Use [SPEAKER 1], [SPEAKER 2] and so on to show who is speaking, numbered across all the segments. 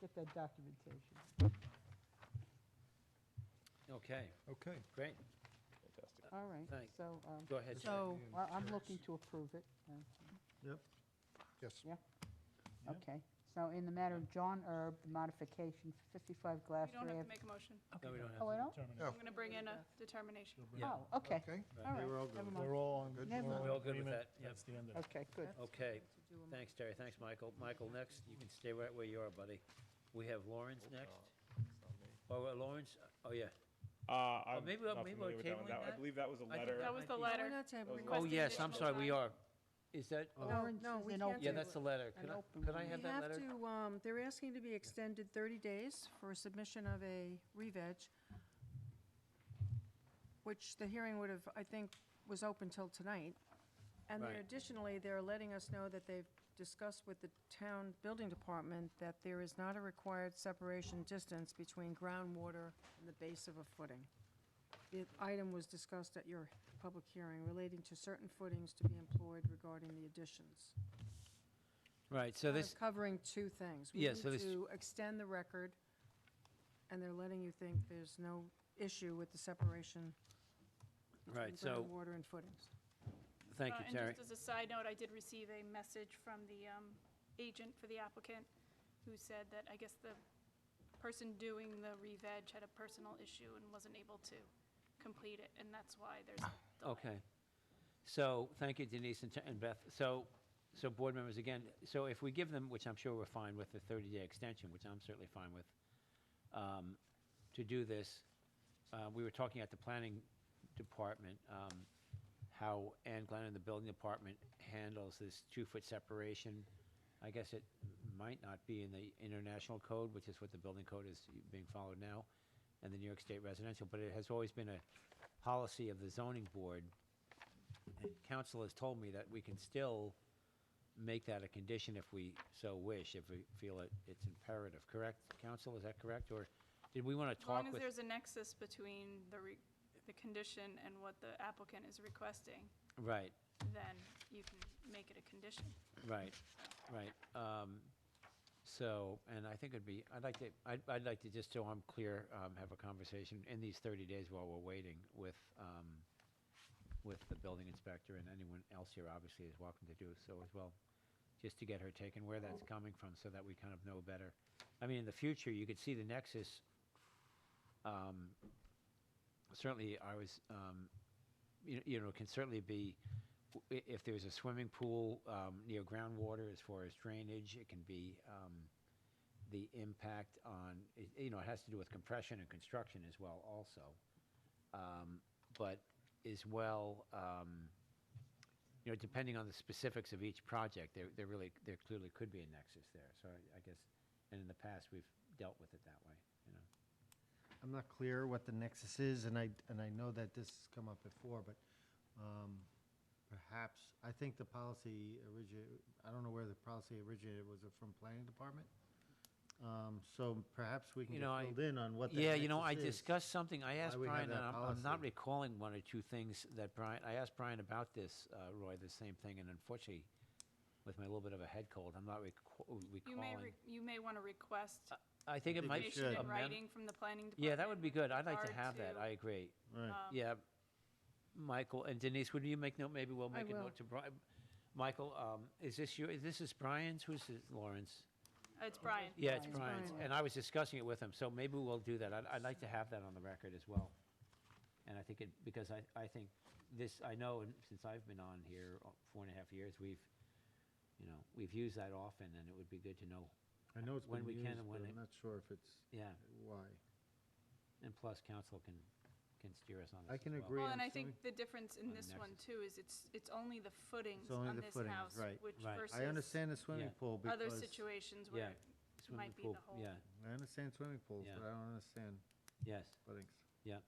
[SPEAKER 1] get that documentation.
[SPEAKER 2] Okay,
[SPEAKER 3] Okay.
[SPEAKER 2] great.
[SPEAKER 4] Fantastic.
[SPEAKER 1] All right,
[SPEAKER 2] Thank-
[SPEAKER 1] so, um,
[SPEAKER 2] Go ahead, Jerry.
[SPEAKER 1] so I- I'm looking to approve it. uh,
[SPEAKER 3] Yep. Yes.
[SPEAKER 1] Yeah?
[SPEAKER 3] Yeah.
[SPEAKER 1] Okay. So in the matter of John Erb, the modification, 55 Glass
[SPEAKER 5] You don't have to
[SPEAKER 1] Ave.
[SPEAKER 5] make a motion.
[SPEAKER 2] No, we don't have
[SPEAKER 1] Oh, I
[SPEAKER 2] to.
[SPEAKER 1] don't?
[SPEAKER 3] Oh.
[SPEAKER 5] I'm going to bring in a determination.
[SPEAKER 2] Yeah.
[SPEAKER 1] Oh, okay.
[SPEAKER 3] Okay.
[SPEAKER 1] All right.
[SPEAKER 2] We're all good
[SPEAKER 1] never
[SPEAKER 2] with
[SPEAKER 1] mind.
[SPEAKER 6] We're all on
[SPEAKER 3] Good.
[SPEAKER 6] good.
[SPEAKER 1] Never
[SPEAKER 6] we're all
[SPEAKER 1] mind.
[SPEAKER 6] in
[SPEAKER 2] We're all good with
[SPEAKER 6] agreement.
[SPEAKER 2] that, yeah.
[SPEAKER 6] That's the end of it.
[SPEAKER 1] Okay, good.
[SPEAKER 2] Okay, thanks, Terry, thanks, Michael. Michael, next, you can stay right where you are, buddy. We have Lawrence next. Oh, uh, Lawrence, oh, yeah.
[SPEAKER 4] Uh, I'm
[SPEAKER 2] Oh, maybe we're-
[SPEAKER 4] not
[SPEAKER 2] maybe we're
[SPEAKER 4] familiar with that one.
[SPEAKER 2] tabling
[SPEAKER 4] That- I
[SPEAKER 2] that?
[SPEAKER 4] believe that was a
[SPEAKER 2] I think
[SPEAKER 4] letter.
[SPEAKER 5] That was the
[SPEAKER 7] No, we're
[SPEAKER 5] letter.
[SPEAKER 7] not tabling.
[SPEAKER 4] That
[SPEAKER 2] Oh,
[SPEAKER 4] was
[SPEAKER 7] it.
[SPEAKER 2] yes, I'm
[SPEAKER 5] additional
[SPEAKER 2] sorry, we
[SPEAKER 5] time.
[SPEAKER 2] are. Is that,
[SPEAKER 8] Uh,
[SPEAKER 1] Lawrence
[SPEAKER 7] no,
[SPEAKER 1] is
[SPEAKER 7] we
[SPEAKER 1] an
[SPEAKER 7] can't
[SPEAKER 1] open-
[SPEAKER 2] yeah, that's the letter.
[SPEAKER 1] An
[SPEAKER 2] Could I,
[SPEAKER 1] open
[SPEAKER 2] could I
[SPEAKER 1] meeting.
[SPEAKER 2] have
[SPEAKER 7] We
[SPEAKER 2] that
[SPEAKER 7] have
[SPEAKER 2] letter?
[SPEAKER 7] to, um, they're asking to be extended 30 days for submission of a re-veg, which the hearing would have, I think, was open till tonight. And they're
[SPEAKER 2] Right.
[SPEAKER 7] additionally, they're letting us know that they've discussed with the town building department that there is not a required separation distance between groundwater and the base of a footing. The item was discussed at your public hearing relating to certain footings to be employed regarding the additions
[SPEAKER 2] Right, so
[SPEAKER 7] kind of
[SPEAKER 2] this,
[SPEAKER 7] covering two things.
[SPEAKER 2] Yeah, so this-
[SPEAKER 7] We need to extend the record, and they're letting you think there's no issue with the separation
[SPEAKER 2] right,
[SPEAKER 7] between
[SPEAKER 2] so,
[SPEAKER 7] groundwater and footings.
[SPEAKER 2] thank
[SPEAKER 5] Uh,
[SPEAKER 2] you, Terry.
[SPEAKER 5] And just as a side note, I did receive a message from the um, agent for the applicant who said that I guess the person doing the re-veg had a personal issue and wasn't able to complete it, and that's why there's a delay.
[SPEAKER 2] Okay. So, thank you Denise and Te- and Beth. So, so board members, again, so if we give them, which I'm sure we're fine with, the 30-day extension, which I'm certainly fine with, um, to do this, uh, we were talking at the planning department, um, how Ann Glenn and the building department handles this two-foot separation. I guess it might not be in the international code, which is what the building code is being followed now, and the New York State residential, but it has always been a policy of the zoning board. And council has told me that we can still make that a condition if we so wish, if we feel it, it's imperative, correct? Council, is that correct, or did we want to
[SPEAKER 5] As
[SPEAKER 2] talk
[SPEAKER 5] long
[SPEAKER 2] with?
[SPEAKER 5] as there's a nexus between the, re- the condition and what the applicant is requesting,
[SPEAKER 2] Right,
[SPEAKER 5] then you can make it a condition.
[SPEAKER 2] right, right. Um, So, and I think it'd be, I'd like to, I'd, I'd like to, just so I'm clear, um, have a conversation in these 30 days while we're waiting with, um, with the building inspector and anyone else here obviously is welcome to do so as well, just to get her take and where that's coming from so that we kind of know better. I mean, in the future, you could see the nexus. um, Certainly, I was, um, you you know, can certainly be, w- i- if there's a swimming pool um, near groundwater as far as drainage, it can be um, the impact on, it- you know, it has to do with compression and construction as well also. Um, But as well, um, you know, depending on the specifics of each project, there, there really, there clearly could be a nexus there. So I- I guess, and in the past, we've dealt with it that way, you know.
[SPEAKER 8] I'm not clear what the nexus is, and I, and I know that this has come up before, but um, perhaps, I think the policy originated, I don't know where the policy originated, was it from planning department? Um, So perhaps we can
[SPEAKER 2] You
[SPEAKER 8] get
[SPEAKER 2] know, I-
[SPEAKER 8] filled in on what the
[SPEAKER 2] Yeah, you know, I
[SPEAKER 8] nexus is.
[SPEAKER 2] discussed something, I asked
[SPEAKER 8] we have
[SPEAKER 2] Brian,
[SPEAKER 8] that
[SPEAKER 2] and I'm, I'm not
[SPEAKER 8] policy.
[SPEAKER 2] recalling one or two things that Brian, I asked Brian about this, uh, Roy, the same thing, and unfortunately, with my little bit of a head cold, I'm not recall-
[SPEAKER 5] You may,
[SPEAKER 2] recalling.
[SPEAKER 5] re- you may want to request
[SPEAKER 2] I think it
[SPEAKER 8] think
[SPEAKER 2] might.
[SPEAKER 8] it
[SPEAKER 5] information
[SPEAKER 8] should.
[SPEAKER 5] in
[SPEAKER 2] amend-
[SPEAKER 5] writing from the planning department. um,
[SPEAKER 2] Yeah, that would be good, I'd like to
[SPEAKER 5] with
[SPEAKER 2] have that, I
[SPEAKER 5] regard
[SPEAKER 2] agree.
[SPEAKER 8] Right.
[SPEAKER 2] Yeah, Michael and Denise, would you make note, maybe we'll make a
[SPEAKER 7] will.
[SPEAKER 2] note to Brian. Michael, um, is this your, this is Brian's, who's this, Lawrence?
[SPEAKER 5] to- It's Brian.
[SPEAKER 2] Yeah, it's
[SPEAKER 7] Brian's.
[SPEAKER 2] Brian's,
[SPEAKER 7] Brian.
[SPEAKER 2] and I was discussing it with him, so maybe we'll do that. I'd, I'd like to have that on the record as well. And I think it, because I, I think this, I know, and since I've been on here uh, four and a half years, we've, you know, we've used that often, and it would be good to know.
[SPEAKER 8] I know it's
[SPEAKER 2] when
[SPEAKER 8] been
[SPEAKER 2] we can
[SPEAKER 8] used,
[SPEAKER 2] and
[SPEAKER 8] but
[SPEAKER 2] when it-
[SPEAKER 8] I'm not sure if it's,
[SPEAKER 2] Yeah,
[SPEAKER 8] why.
[SPEAKER 2] and plus council can, can steer us on this
[SPEAKER 8] I
[SPEAKER 2] as
[SPEAKER 8] can
[SPEAKER 2] well.
[SPEAKER 8] agree.
[SPEAKER 5] Well, and
[SPEAKER 8] I'm
[SPEAKER 5] I think
[SPEAKER 8] sorry.
[SPEAKER 5] the difference
[SPEAKER 2] On
[SPEAKER 5] in this one
[SPEAKER 2] Nexus.
[SPEAKER 5] too is it's, it's only the
[SPEAKER 8] It's
[SPEAKER 5] footings
[SPEAKER 8] only
[SPEAKER 5] on
[SPEAKER 8] the
[SPEAKER 5] this
[SPEAKER 8] footings,
[SPEAKER 5] house,
[SPEAKER 8] right.
[SPEAKER 5] which
[SPEAKER 2] Right. I
[SPEAKER 5] versus
[SPEAKER 8] I understand the swimming
[SPEAKER 2] Yeah.
[SPEAKER 8] pool because.
[SPEAKER 5] other situations
[SPEAKER 2] Yeah.
[SPEAKER 5] where it
[SPEAKER 2] Swimming
[SPEAKER 5] might be
[SPEAKER 2] pool,
[SPEAKER 5] the whole.
[SPEAKER 2] Yeah,
[SPEAKER 8] I understand swimming pools,
[SPEAKER 2] Yeah.
[SPEAKER 8] but I don't understand
[SPEAKER 2] yes,
[SPEAKER 8] buildings.
[SPEAKER 2] yeah.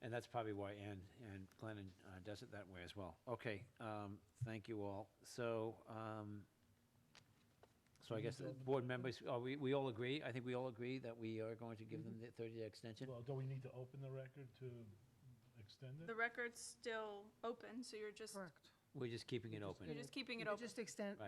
[SPEAKER 2] And that's probably why Ann, and Glennon uh, does it that way as well. Okay, um, thank you all. So, um, so I guess the board members, are we, we all agree? I think we all agree that we are going to give them the 30-day extension?
[SPEAKER 6] Well, do we need to open the record to extend
[SPEAKER 5] The
[SPEAKER 6] it?
[SPEAKER 5] record's still open, so you're just,
[SPEAKER 7] Correct.
[SPEAKER 2] We're just keeping it
[SPEAKER 5] you're
[SPEAKER 2] open.
[SPEAKER 5] just keeping it
[SPEAKER 7] You could
[SPEAKER 5] open.
[SPEAKER 7] Just extend,
[SPEAKER 2] Right.